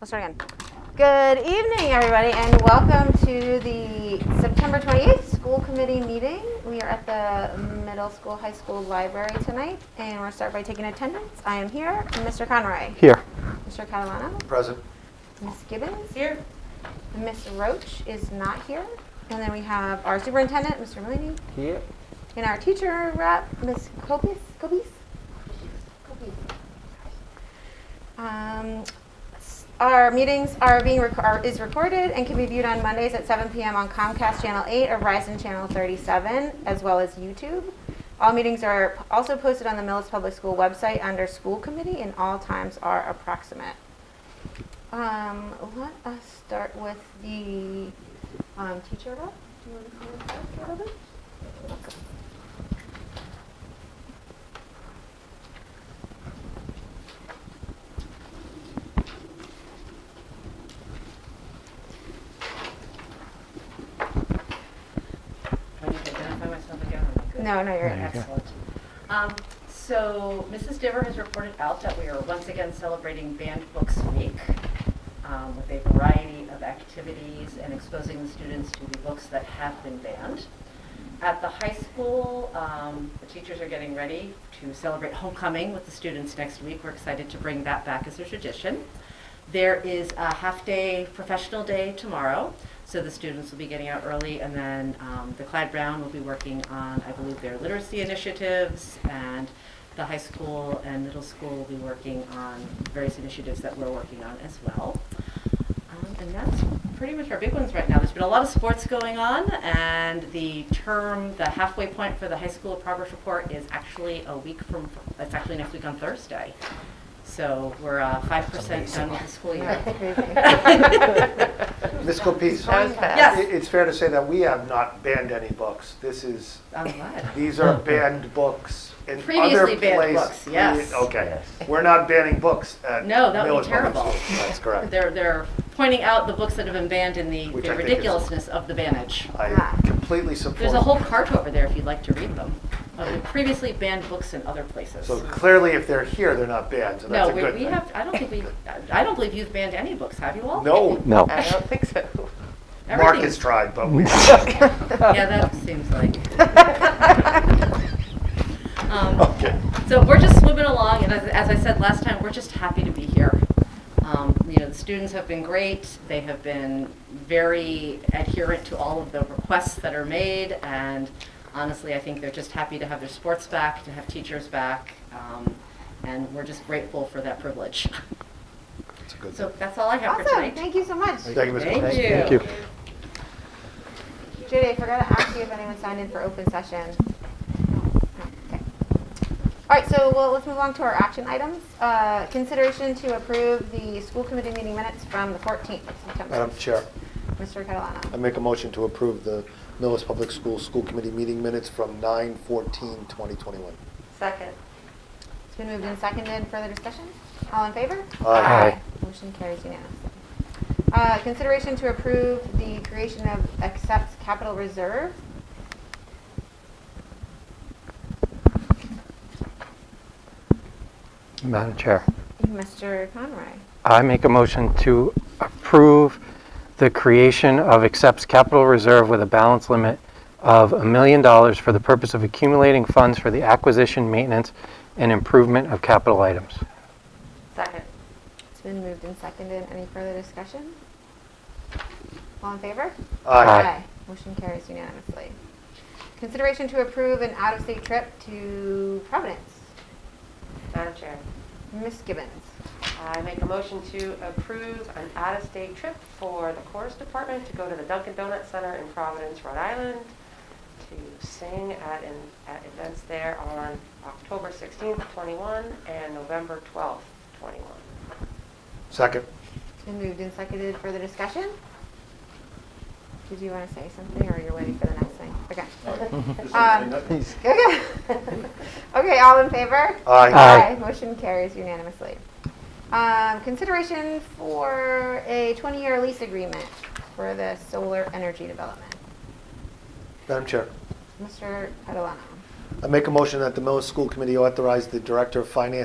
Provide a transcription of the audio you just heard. Let's start again. Good evening, everybody, and welcome to the September 28th school committee meeting. We are at the middle school, high school library tonight, and we're going to start by taking attendance. I am here, Mr. Conroy, Here. Mr. Catalano, Present. Ms. Gibbons, Here. Ms. Roach is not here, and then we have our superintendent, Mr. Mullany, Here. and our teacher rep, Ms. Copis, Copis? Um, s- Our meetings are being, rec- are- is recorded and can be viewed on Mondays at 7 PM on Comcast Channel 8 or Verizon Channel 37, as well as YouTube. All meetings are p- also posted on the Millis Public School website under School Committee, and all times are approximate. Um, Let us start with the um, teacher rep. Do you want to come up a little bit? I need to identify myself again. or am I good? No, no, you're There you next. go. Excellent. Um, So Mrs. Diver has reported out that we are once again celebrating Banned Books Week um, with a variety of activities and exposing the students to the books that have been banned. At the high school, um, the teachers are getting ready to celebrate homecoming with the students next week. We're excited to bring that back as a tradition. There is a half-day professional day tomorrow, so the students will be getting out early, and then um, the Clyde Brown will be working on, I believe, their literacy initiatives, and the high school and middle school will be working on various initiatives that we're working on as well. Um, And that's pretty much our big ones right now. There's been a lot of sports going on, and the term, the halfway point for the high school progress report is actually a week from, it's actually next week on Thursday. So we're uh, five percent done with the school year. Ms. Copese. That was fast. Yes. it- It's fair to say that we have not banned any books. This is, I'm glad. these are banned books in other places. Previously banned books, yes. Okay. We're not banning books at No, that would Millis be Public terrible. Schools. That's correct. They're, they're pointing out the books that have been banned and the Which the I think is- ridiculousness of the bannage. I completely support. There's a whole cart over there if you'd like to read them, of the previously banned books in other places. So clearly, if they're here, they're not banned, so that's No, a we good we thing. have, I don't think we, I don't believe you've banned any books, have you all? No, No. I don't think so. Mark Everything- has tried, but we, Yeah, that seems like. Um, okay. So we're just swimming along, and as, as I said last time, we're just happy to be here. Um, you know, the students have been great. They have been very adherent to all of the requests that are made, and honestly, I think they're just happy to have their sports back, to have teachers back, um, and we're just grateful for that privilege. It's a good thing. So that's all I have for Awesome, tonight. thank you so much. Thank you, Ms. Thank Copese. you. Thank you. Judy, I forgot to ask you if anyone signed in for open session. No, okay. All right, so well, let's move on to our action items. Uh, Consideration to approve the school committee meeting minutes from the 14th of September. Madam Chair, Mr. I Catalano. make a motion to approve the Millis Public Schools School Committee meeting minutes from 9/14/2021. Second. It's been moved and seconded. Further discussion? All in favor? Aye. Aye. Motion carries unanimously. Uh, Consideration to approve the creation of accepts capital reserve. Madam Chair, Mr. Conroy. I make a motion to approve the creation of accepts capital reserve with a balance limit of a million dollars for the purpose of accumulating funds for the acquisition, maintenance, and improvement of capital items. Second. It's been moved and seconded. Any further discussion? All in favor? Aye. Motion carries unanimously. Consideration to approve an out-of-state trip to Providence. Madam Chair, Ms. Gibbons. I make a motion to approve an out-of-state trip for the chorus department to go to the Dunkin' Donut Center in Providence, Rhode Island, to sing at, an- at events there on October 16th, 21, and November 12th, 21. Second. It's been moved and seconded. Further discussion? Did you want to say something, or you're waiting for the next thing? Okay. Um, Okay. Okay, all in favor? Aye. Aye. Motion carries unanimously. Um, Consideration for a 20-year lease agreement for the solar energy development. Madam Chair, Mr. Catalano. I make a motion that the Millis School Committee authorize the Director of Finance